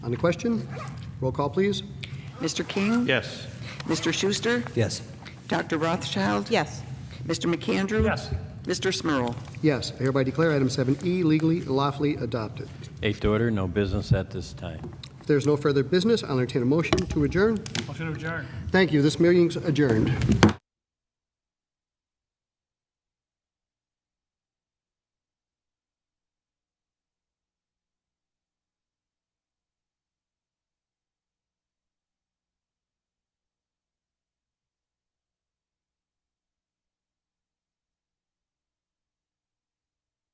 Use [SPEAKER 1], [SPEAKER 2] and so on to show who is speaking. [SPEAKER 1] On the question? Roll call, please.
[SPEAKER 2] Mr. King?
[SPEAKER 3] Yes.
[SPEAKER 2] Mr. Schuster?
[SPEAKER 4] Yes.
[SPEAKER 2] Dr. Rothschild?
[SPEAKER 5] Yes.
[SPEAKER 2] Mr. McAndrew?
[SPEAKER 3] Yes.
[SPEAKER 2] Mr. Smurl?
[SPEAKER 1] Yes, I hereby declare item 7E legally, lawfully adopted.
[SPEAKER 6] Eighth order, no business at this time.
[SPEAKER 1] If there's no further business, I'll entertain a motion to adjourn.
[SPEAKER 3] Motion to adjourn.
[SPEAKER 1] Thank you, this meeting's adjourned.